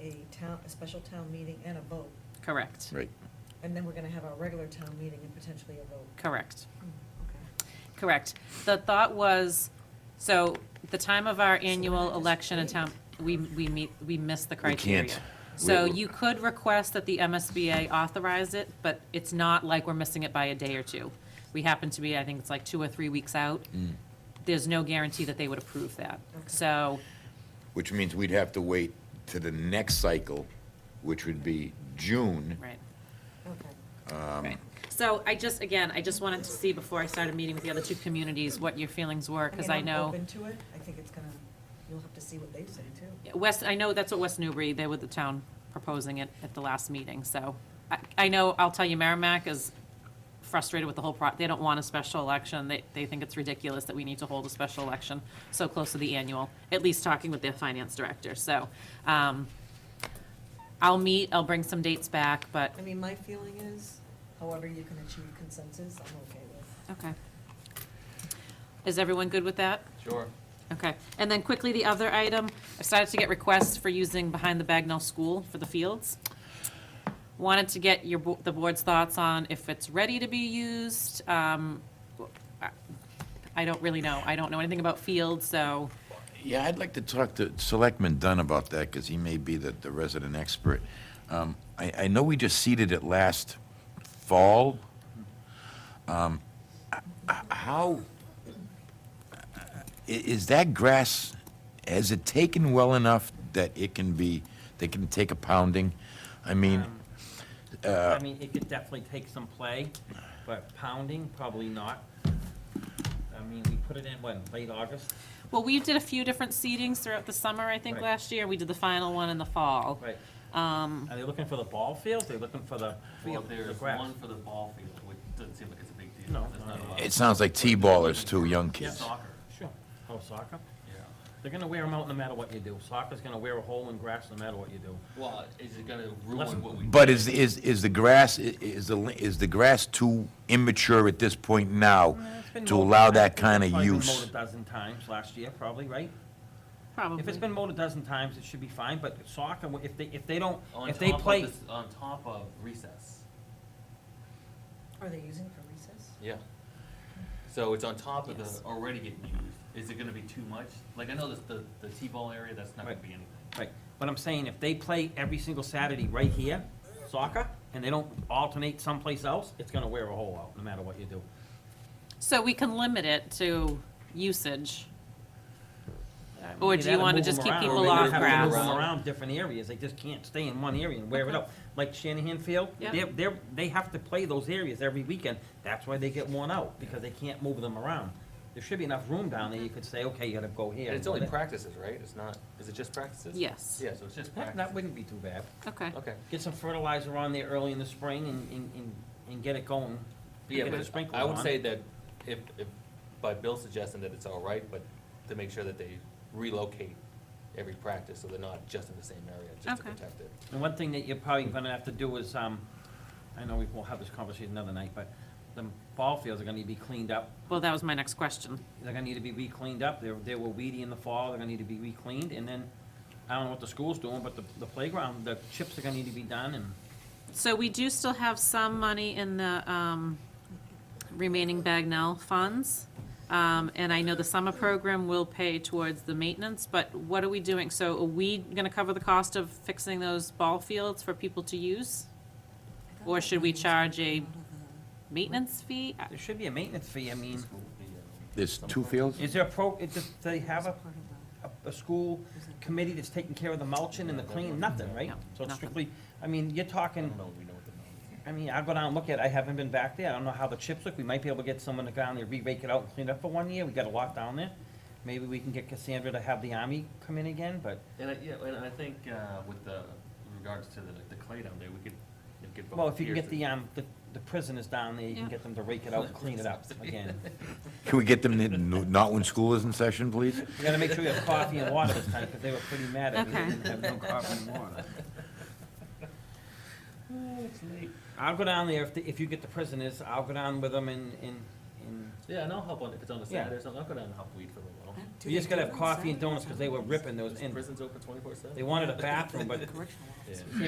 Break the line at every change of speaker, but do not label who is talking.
a town, a special town meeting and a vote.
Correct,
Right.
And then we're gonna have our regular town meeting and potentially a vote. Hmm,
correct,
Okay.
correct. The thought was, so the time of our
So
annual
then I
election and
just
town, we, we meet, we miss the
We
criteria.
can't.
So
We-
you could request that the MSBA authorize it, but it's not like we're missing it by a day or two. We happen to be, I think it's like two or three weeks out.
Mm.
There's no guarantee that they would approve that.
Okay.
So,
Which means we'd have to wait to the next cycle, which would be June. Um,
right.
Okay.
Right. So I just, again, I just wanted to see before I started meeting with the other two communities, what your feelings were, because I
mean, I'm
know,
open to it. I think it's gonna, you'll have to see what they say too.
West, I know that's what West Newbury, they were the town proposing it at the last meeting, so. I, I know, I'll tell you, Merrimack is frustrated with the whole pro, they don't want a special election. They, they think it's ridiculous that we need to hold a special election so close to the annual, at least talking with their finance director, so. um, I'll meet, I'll bring some dates back, but,
I mean, my feeling is, however you can achieve consensus, I'm okay with.
okay. Is everyone good with that?
Sure.
Okay, and then quickly, the other item, I started to get requests for using behind the Bagnell School for the fields. Wanted to get your, bo- the board's thoughts on if it's ready to be used. Um, I- I don't really know, I don't know anything about fields, so,
Yeah, I'd like to talk to Selectman Dunn about that, because he may be the, the resident expert. Um, I, I know we just seeded it last fall. Um, h- h- How, i- is that grass, has it taken well enough that it can be, they can take a pounding? I mean, Uh,
I mean, it could definitely take some play, but pounding, probably not. I mean, we put it in, what, late August?
well, we did a few different seedings throughout the summer, I think,
Right.
last year. We did the final one in the fall.
Right.
Um,
Are they looking for the ball fields? They're looking for the
Well,
field, the
there's
grass?
one for the ball field, which doesn't seem like it's a big deal.
No,
That's
no,
not
no.
a lot.
it sounds like T-ballers too, young
Yeah,
kids.
Soccer,
Sure. Oh, soccer?
yeah.
They're gonna wear them out no matter what you do. Soccer's gonna wear a hole in grass no matter what you do.
Well, is it gonna
Listen,
ruin what we?
But
did?
is, is, is the grass, i- is the, is the grass too immature at this point now
It's been
Oh, to
mowed-
allow that
it's
kind of
probably been
use?
Mowed a dozen times last year, probably, right? If it's
Probably.
been mowed a dozen times, it should be fine, but soccer, if they, if they don't,
On
if they
top of
play.
this- On top of recess.
Are they using it for recess?
Yeah. So it's on top of
Yes.
the already getting used. Is it gonna be too much? Like, I know this, the, the T-ball area, that's not gonna
Right.
be anything.
Right, but I'm saying if they play every single Saturday right here, soccer, and they don't alternate someplace else, it's gonna wear a hole out, no matter what you do.
So we can limit it to usage.
I mean,
Or
you
do you
gotta
wanna
move
just
them
keep
around.
people
Or
off
maybe have to
grass?
Move them around different areas, they just can't stay in one area and wear it
Okay.
out. Like Shanahan Field,
Yeah.
they're, they're, they have to play those areas every weekend, that's why they get worn out, because they can't move them around. There should be enough room down there, you could say, okay, you gotta go here.
And it's
go
only
there.
practices, right? It's not, is it just practices?
Yes.
Yeah, so it's just
That, that
practice.
wouldn't be too bad.
Okay.
Okay.
Get some fertilizer on there early in the spring and, and, and- and get it going.
Yeah,
Get the
but
sprinklers
I would
on.
say that if, if, by Bill's suggesting that it's all right, but to make sure that they relocate every practice, so they're not just in the same area, just to
Okay.
protect it.
And one thing that you're probably gonna have to do is, um, I know we will have this conversation another night, but the ball fields are gonna need to be cleaned up.
Well, that was my next question.
They're gonna need to be re-cleaned up. They, they were weedy in the fall. They're gonna need to be re-cleaned. And then, I don't know what the school's doing, but the, the playground, the chips are gonna need to be done and,
So we do still have some money in the um, remaining Bagnell funds. Um, And I know the summer program will pay towards the maintenance, but what are we doing? So are we going to cover the cost of fixing those ball fields for people to use? Or should we charge a maintenance fee?
there should be a maintenance fee. I mean,
uh,
There's two fields?
is there a pro, it just, they have a, a, a school committee that's taking care of the mulching and the cleaning? Nothing, right?
No,
So it's
nothing.
strictly, I mean, you're
I
talking
don't know, if we know what the number
I mean, I'll go down and look at it, I haven't been back there, I don't know how the chips look, we might be able to get someone to go down there, re-rake it out and clean it up for one year, we got a lot down there. Maybe we can get Cassandra to have the army come in again, but,
is. And I, yeah, and I think, uh, with the, in regards to the, the clay down there, we could, you know, get both.
well, if you can get the, um, the the prisoners down there, you can
Yeah.
get them to rake it out and clean it up again.
Can we get them, to- not when school is in session, please?
You gotta make sure you have coffee and water this time, because they were pretty mad at me, they
Okay.
didn't have no coffee and water.
Oh,
I'll go down there, if, the- if you get the prisoners, I'll go down with them and, and, and
Yeah, and I'll help on, if it's on a
Yeah.
Saturday or something, I'll go down and help weed for a little while.
You just gotta have coffee and donuts, because they were ripping those,
Is
and
prisons open twenty-four seven?
they wanted a bathroom, but
Yeah.